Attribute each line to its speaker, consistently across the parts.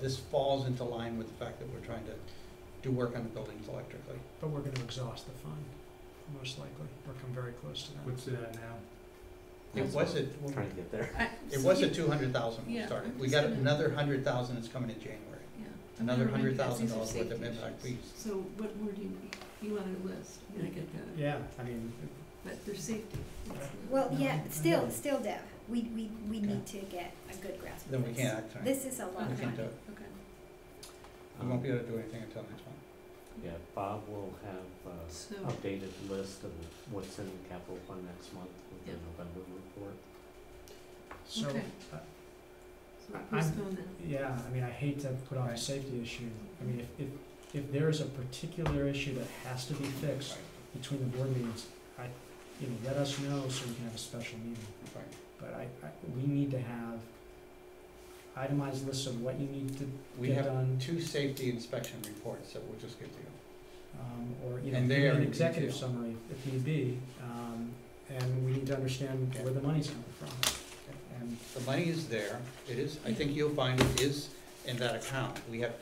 Speaker 1: This falls into line with the fact that we're trying to do work on the buildings electrically.
Speaker 2: But we're gonna exhaust the fund, most likely, or come very close to that.
Speaker 3: What's it at now?
Speaker 1: It
Speaker 4: That's
Speaker 1: was
Speaker 4: what
Speaker 1: at,
Speaker 4: I'm Trying to get there.
Speaker 5: I-
Speaker 1: it
Speaker 5: so
Speaker 1: was
Speaker 5: you-
Speaker 1: at two hundred thousand when we
Speaker 5: Yeah,
Speaker 1: started.
Speaker 5: I'm
Speaker 1: We
Speaker 5: just
Speaker 1: got
Speaker 5: gonna-
Speaker 1: another hundred thousand that's coming in January.
Speaker 5: yeah. I'm
Speaker 1: Another
Speaker 5: gonna remind
Speaker 1: hundred
Speaker 5: you guys,
Speaker 1: thousand
Speaker 5: these are
Speaker 1: dollars worth of
Speaker 5: safety
Speaker 1: impact
Speaker 5: issues.
Speaker 1: fees.
Speaker 5: So what word do you need? You wanted a list, I mean, I get that,
Speaker 3: Yeah, I mean,
Speaker 5: but there's safety. It's not-
Speaker 6: Well,
Speaker 3: No,
Speaker 6: Oh, yeah,
Speaker 3: I know.
Speaker 6: still, still, Deb, we, we, we
Speaker 1: Okay.
Speaker 6: need to get a good grasp of this.
Speaker 1: Then we can't act on it.
Speaker 6: This is a lot
Speaker 1: We
Speaker 6: of
Speaker 1: can't do
Speaker 6: money.
Speaker 1: it.
Speaker 5: Okay.
Speaker 1: We won't be
Speaker 4: Um,
Speaker 1: able to do anything until next month.
Speaker 4: Yeah, Bob will have
Speaker 5: So-
Speaker 4: uh updated list of what's in the capital fund next month with the
Speaker 5: Yep.
Speaker 4: November report.
Speaker 2: So,
Speaker 5: Okay.
Speaker 2: uh,
Speaker 5: So
Speaker 2: I-
Speaker 5: who's
Speaker 2: I'm-
Speaker 5: going then?
Speaker 2: yeah, I mean, I hate to put on a safety issue. I mean, if, if, if there is a particular issue that has to be fixed between the board meetings, I, you know, let us know so we can have a special meeting.
Speaker 1: Right.
Speaker 2: But I, I, we need to have itemized lists of what you need to
Speaker 1: We
Speaker 2: get
Speaker 1: have
Speaker 2: done,
Speaker 1: two safety inspection reports that we'll just give to you.
Speaker 2: um, or, you know,
Speaker 1: And they
Speaker 2: even
Speaker 1: are
Speaker 2: an
Speaker 1: in
Speaker 2: executive
Speaker 1: detail.
Speaker 2: summary if need be. Um, and we need to understand
Speaker 1: Okay.
Speaker 2: where the money's coming from. And
Speaker 1: The money is there, it is, I think you'll find it is in that account. We have,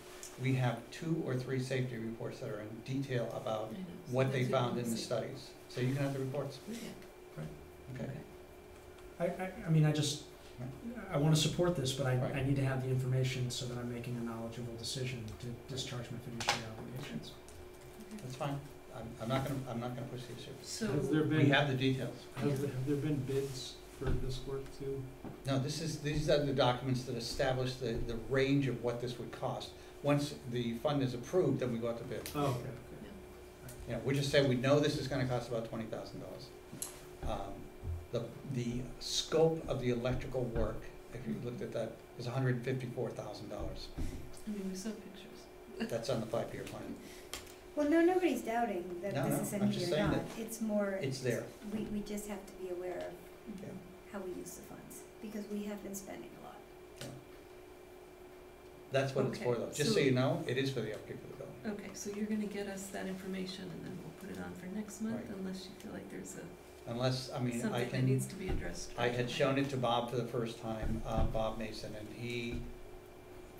Speaker 1: we have two or three safety reports that are in detail
Speaker 5: I
Speaker 1: about
Speaker 5: know, so
Speaker 1: what they
Speaker 5: that's
Speaker 1: found
Speaker 5: it,
Speaker 1: in the
Speaker 5: safety.
Speaker 1: studies. So you can have the reports,
Speaker 5: Okay.
Speaker 1: okay?
Speaker 2: I, I, I mean, I just, I wanna support this, but I, I
Speaker 1: Right.
Speaker 2: need to have the information so that I'm making a knowledgeable decision to discharge my fiduciary obligations.
Speaker 1: That's fine. I'm, I'm not gonna, I'm not gonna push the issue.
Speaker 5: So,
Speaker 3: has there
Speaker 1: We
Speaker 3: been, has
Speaker 1: have the details.
Speaker 3: there, have there been bids for this work too?
Speaker 1: No, this is, these are the documents that establish the, the range of what this would cost. Once the fund is approved, then we go out to bid.
Speaker 3: Oh, okay,
Speaker 1: You know, we just say, we know this is gonna cost about twenty thousand dollars. Um, The, the scope of the electrical work, if you looked at that, is hundred and fifty-four thousand dollars.
Speaker 5: I mean, we saw pictures.
Speaker 1: That's on the five-year plan.
Speaker 6: Well, no, nobody's doubting that
Speaker 1: No,
Speaker 6: this is
Speaker 1: no,
Speaker 6: in
Speaker 1: I'm
Speaker 6: here
Speaker 1: just
Speaker 6: or
Speaker 1: saying
Speaker 6: not. It's more,
Speaker 1: It's there.
Speaker 6: we, we just have to be aware of
Speaker 1: Yeah.
Speaker 6: how we use the funds, because we have been spending a lot.
Speaker 1: That's what it's for though. Just so
Speaker 5: Okay, so-
Speaker 1: you know, it is for the upkeep of the building.
Speaker 5: Okay, so you're gonna get us that information and then we'll put it on for next month
Speaker 1: Right.
Speaker 5: unless you feel like there's a,
Speaker 1: Unless, I mean, I
Speaker 5: something that
Speaker 1: can,
Speaker 5: needs to be addressed.
Speaker 1: I
Speaker 5: right
Speaker 1: had
Speaker 5: away.
Speaker 1: shown it to Bob for the first time, uh, Bob Mason, and he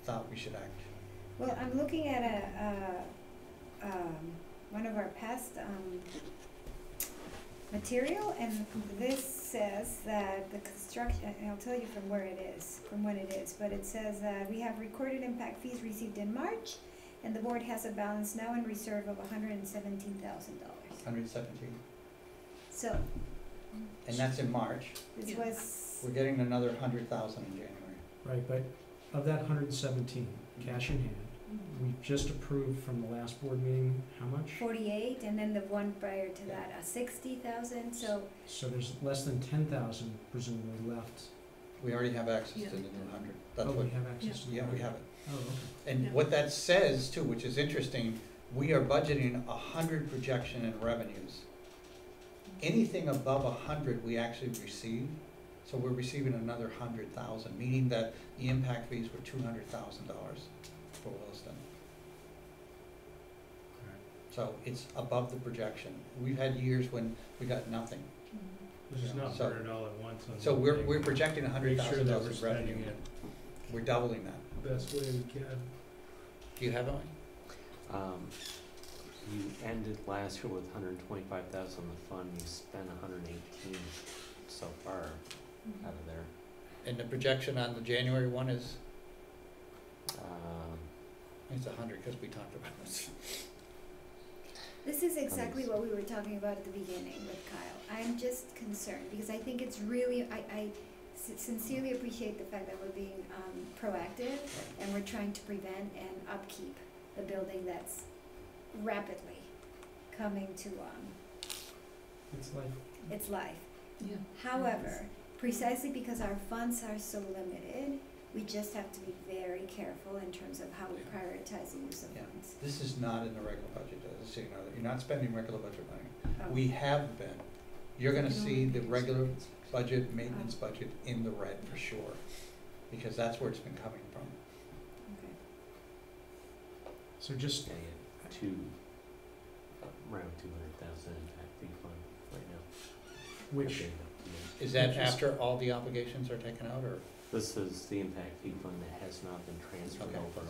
Speaker 1: thought we should act.
Speaker 6: Well, I'm looking at a, a, Uh, um, one of our past, um, material, and this says that the construction, and I'll tell you from where it is, from when it is, but it says, uh, we have recorded impact fees received in March, and the board has a balance now in reserve of hundred and seventeen thousand dollars.
Speaker 1: Hundred seventeen,
Speaker 6: So,
Speaker 1: and that's in March.
Speaker 6: this
Speaker 5: Yeah.
Speaker 6: was,
Speaker 1: We're getting another hundred thousand in January.
Speaker 2: Right, but of that hundred and seventeen, cash in hand,
Speaker 5: Mm.
Speaker 2: we just approved from the last board meeting, how much?
Speaker 6: forty-eight, and then the one prior to that, uh, sixty thousand, so
Speaker 2: So there's less than ten thousand presumably left,
Speaker 1: We already have access to
Speaker 5: Yeah.
Speaker 1: the new hundred. That's
Speaker 2: Oh,
Speaker 1: what,
Speaker 2: we have access to.
Speaker 1: yeah, we have it.
Speaker 2: Oh, okay.
Speaker 1: And
Speaker 5: Yeah.
Speaker 1: what that says too, which is interesting, we are budgeting a hundred projection in revenues. Anything above a hundred, we actually receive, so we're receiving another hundred thousand, meaning that the impact fees were two hundred thousand dollars for Williston. So it's above the projection. We've had years when we got nothing,
Speaker 5: Mm.
Speaker 6: Mm-hmm.
Speaker 3: This is not
Speaker 1: So-
Speaker 3: burn it all at once on.
Speaker 1: so
Speaker 3: one
Speaker 1: we're,
Speaker 3: thing.
Speaker 1: we're projecting a hundred
Speaker 3: Make sure
Speaker 1: thousand
Speaker 3: that
Speaker 1: dollars of
Speaker 3: we're spending
Speaker 1: revenue. We're doubling that.
Speaker 3: it Best way we can.
Speaker 1: Do you have it?
Speaker 4: Um, you ended last year with hundred and twenty-five thousand in the fund, you spent hundred and eighteen so far
Speaker 5: Mhm.
Speaker 4: out of there.
Speaker 1: And the projection on the January one is,
Speaker 4: Um,
Speaker 1: it's a hundred, cause we talked about this.
Speaker 6: This is exactly what we were talking about at the beginning with Kyle. I'm just concerned because I think it's really, I, I sin- sincerely appreciate the fact that we're being um, proactive and we're trying to prevent and upkeep the building that's rapidly coming to um,
Speaker 2: It's like,
Speaker 6: its life.
Speaker 5: Yeah.
Speaker 6: However, precisely because our funds are so limited, we just have to be very careful in terms of how we
Speaker 1: Yeah.
Speaker 6: prioritize the use of
Speaker 1: Yeah.
Speaker 6: funds.
Speaker 1: This is not in the regular budget, just so you know, you're not spending regular budget money.
Speaker 6: Oh.
Speaker 1: We have been. You're gonna
Speaker 5: You know,
Speaker 1: see the
Speaker 5: it's-
Speaker 1: regular budget, maintenance budget in the red for sure, because that's where it's been coming from.
Speaker 2: so just,
Speaker 4: yeah, yeah, two, around two hundred thousand impact fee fund right now.
Speaker 2: which,
Speaker 4: Yeah.
Speaker 1: Is that
Speaker 2: Interest.
Speaker 1: after all the obligations are taken out, or This is the impact fee fund that has not been transferred
Speaker 2: Okay.
Speaker 1: over